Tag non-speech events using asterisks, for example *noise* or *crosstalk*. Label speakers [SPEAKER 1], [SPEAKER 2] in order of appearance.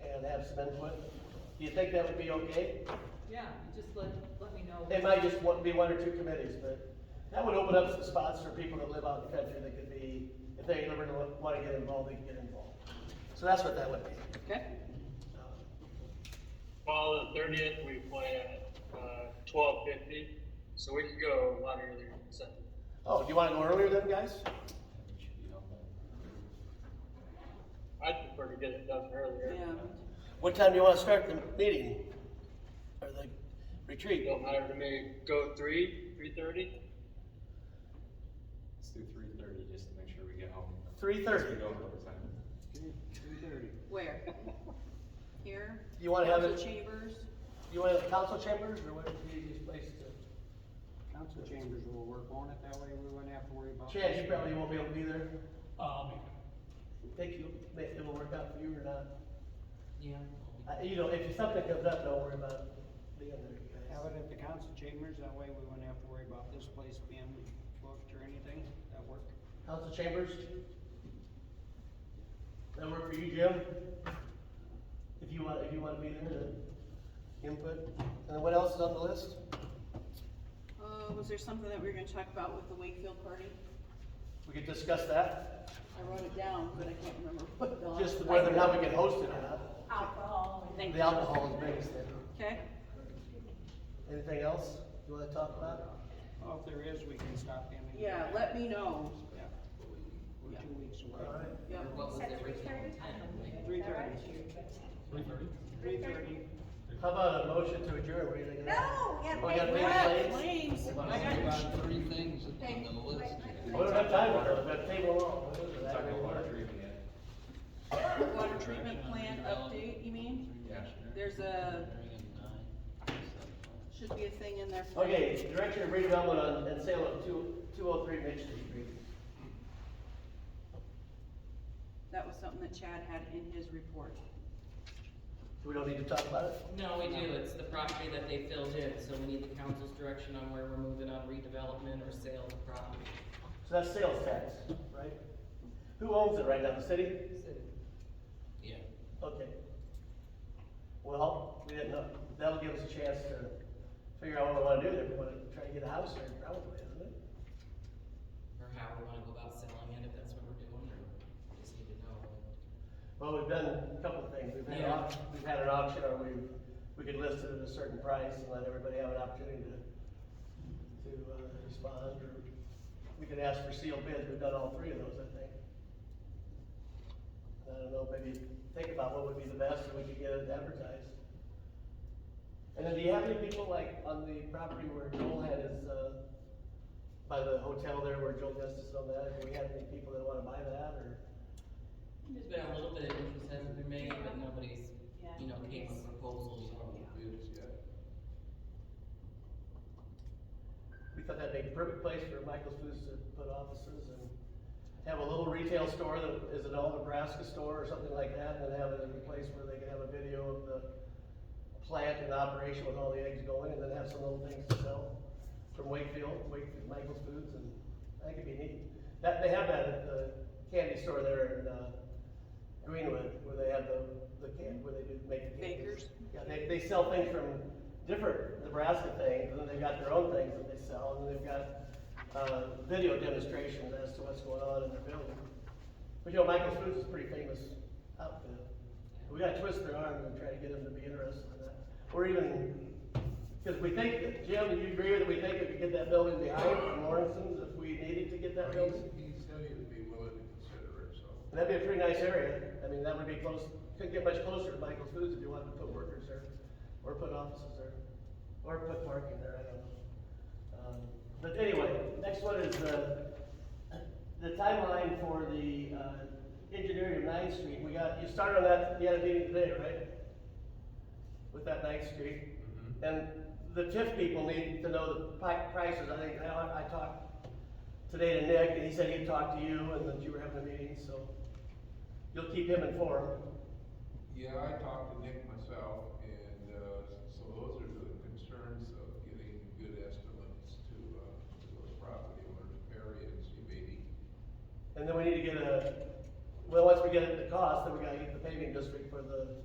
[SPEAKER 1] some input? Do you think that would be okay?
[SPEAKER 2] Yeah, you just let, let me know.
[SPEAKER 1] It might just want- be one or two committees, but that would open up some spots for people that live out in the country that could be, if they ever want to get involved, they can get involved. So that's what that would be. Uh,
[SPEAKER 2] Okay,
[SPEAKER 3] Well, the thirtieth, we play at, uh, twelve fifty, so we could go a lot earlier than seven.
[SPEAKER 1] Oh, do you want to go earlier then, guys?
[SPEAKER 3] I'd prefer to get it done earlier.
[SPEAKER 2] yeah.
[SPEAKER 1] What time do you want to start the meeting? Or the retreat?
[SPEAKER 3] Don't matter to me, go three, three thirty?
[SPEAKER 4] Let's do three thirty, just to make sure we get home.
[SPEAKER 1] Three
[SPEAKER 4] Because
[SPEAKER 1] thirty.
[SPEAKER 4] We go over overtime.
[SPEAKER 2] Where? Here?
[SPEAKER 1] You wanna have
[SPEAKER 2] Council
[SPEAKER 1] it-
[SPEAKER 2] Chambers?
[SPEAKER 1] You want to have council chambers or what would be the easiest place to?
[SPEAKER 5] Council chambers will work on it, that way we wouldn't have to worry about.
[SPEAKER 1] Chad, you probably won't be able to Uh, be there.
[SPEAKER 6] I'll make
[SPEAKER 1] Think you, if it will work out for you or not.
[SPEAKER 2] Yeah.
[SPEAKER 1] Uh, You know, if something comes up, don't worry about being there, guys.
[SPEAKER 5] Have it at the council chambers, that way we wouldn't have to worry about this place being booked or anything, that work.
[SPEAKER 1] Council chambers? That work for you, Jim? If you want, if you want to be there to input, and then what else is on the list?
[SPEAKER 2] Uh, was there something that we were gonna talk about with the Wakefield party?
[SPEAKER 1] We could discuss that,
[SPEAKER 2] I wrote it down, but I can't remember *laughs* what. it was.
[SPEAKER 1] just whether or not we can host it or not.
[SPEAKER 7] alcohol and
[SPEAKER 2] Thank
[SPEAKER 1] The
[SPEAKER 2] you.
[SPEAKER 1] alcohol is biggest thing.
[SPEAKER 2] Okay,
[SPEAKER 1] Anything else you want to talk about?
[SPEAKER 5] Well, if there is, we can stop in. and-
[SPEAKER 2] yeah, let me know.
[SPEAKER 5] Yeah. We're two weeks away.
[SPEAKER 1] All right.
[SPEAKER 2] Yep.
[SPEAKER 7] three thirty time.
[SPEAKER 5] Three thirty. Three thirty?
[SPEAKER 1] How about a motion to adjourn, what do you think? of that?
[SPEAKER 7] No, yeah,
[SPEAKER 1] Oh, we
[SPEAKER 7] wait,
[SPEAKER 1] gotta make
[SPEAKER 7] wait.
[SPEAKER 1] plans?
[SPEAKER 2] Flames. I got-
[SPEAKER 8] About three things on the list.
[SPEAKER 1] We don't have time, we're gonna have a table long. What is it,
[SPEAKER 4] Talking
[SPEAKER 1] that
[SPEAKER 4] about water
[SPEAKER 1] big?
[SPEAKER 4] treatment yet.
[SPEAKER 2] Water treatment plant update, you mean?
[SPEAKER 4] Yeah.
[SPEAKER 2] There's a, should be a thing in there. for-
[SPEAKER 1] Okay, Director of Redevelopment on, and Sale of two, two oh three Mitchell Street.
[SPEAKER 2] That was something that Chad had in his report.
[SPEAKER 1] We don't need to talk about it?
[SPEAKER 9] No, we do, it's the property that they filled in, so we need the council's direction on where we're moving on redevelopment or sale of the property.
[SPEAKER 1] So that's sales tax, right? Who owns it right now, the city?
[SPEAKER 9] Yeah.
[SPEAKER 1] Okay. Well, we didn't know, that'll give us a chance to figure out what we wanna do there, we wanna try to get a house there probably, isn't it?
[SPEAKER 9] Or how we wanna go about selling it, if that's what we're doing, or just need to know.
[SPEAKER 1] Well, we've done a couple of things, we've had, an au- we've had an auction, or we, we could list it at a certain price and let everybody have an opportunity to, to uh, respond, or we could ask for sealed bids, we've done all three of those, I think. I don't know, maybe think about what would be the best, and we could get it advertised. And then do you have any people like on the property where Joel had his, uh, by the hotel there where Joel Justice and all that, do we have any people that wanna buy that, or?
[SPEAKER 9] There's been a little bit of interest has been made, but nobody's, you know, came with proposals or
[SPEAKER 4] Bids yet.
[SPEAKER 1] We thought that'd be a perfect place for Michael's Foods to put offices and have a little retail store that is an all Nebraska store or something like that, and then have it in a place where they can have a video of the plant and operation with all the eggs going, and then have some little things to sell from Wakefield, Wakefield, Michael's Foods, and that could be neat. That, they have that at the candy store there in, uh, Greenwood, where they have the, the can, where they do make the candies.
[SPEAKER 2] Bakers.
[SPEAKER 1] Yeah, they, they sell things from different Nebraska things, and then they've got their own things that they sell, and then they've got, uh, video demonstrations as to what's going on in their building. But, you know, Michael's Foods is a pretty famous outfit. We gotta twist their arm and try to get them to be interested in that, or even, cause we think, that- Jim, do you agree that we think we could get that building behind from Lawrence's if we needed to get that building?
[SPEAKER 10] He said he would be willing to consider it, so.
[SPEAKER 1] And That'd be a pretty nice area, I mean, that would be close, couldn't get much closer to Michael's Foods if you wanted to put workers there, or put offices there, or put parking there, I don't know. Um, But anyway, next one is the, the timeline for the, uh, engineering of Ninth Street, we got, you started on that, you had a meeting today, right? With that Ninth Street, and the TIF people need to know the pri- prices, I think, I, I talked today to Nick, and he said he'd talk to you, and that you were having a meeting, so you'll keep him informed.
[SPEAKER 10] Yeah, I talked to Nick myself, and, uh, so those are the concerns of getting good estimates to, uh, to those property owners, Perry and Seabady.
[SPEAKER 1] And then we need to get a, well, once we get the cost, then we gotta get the paving district for the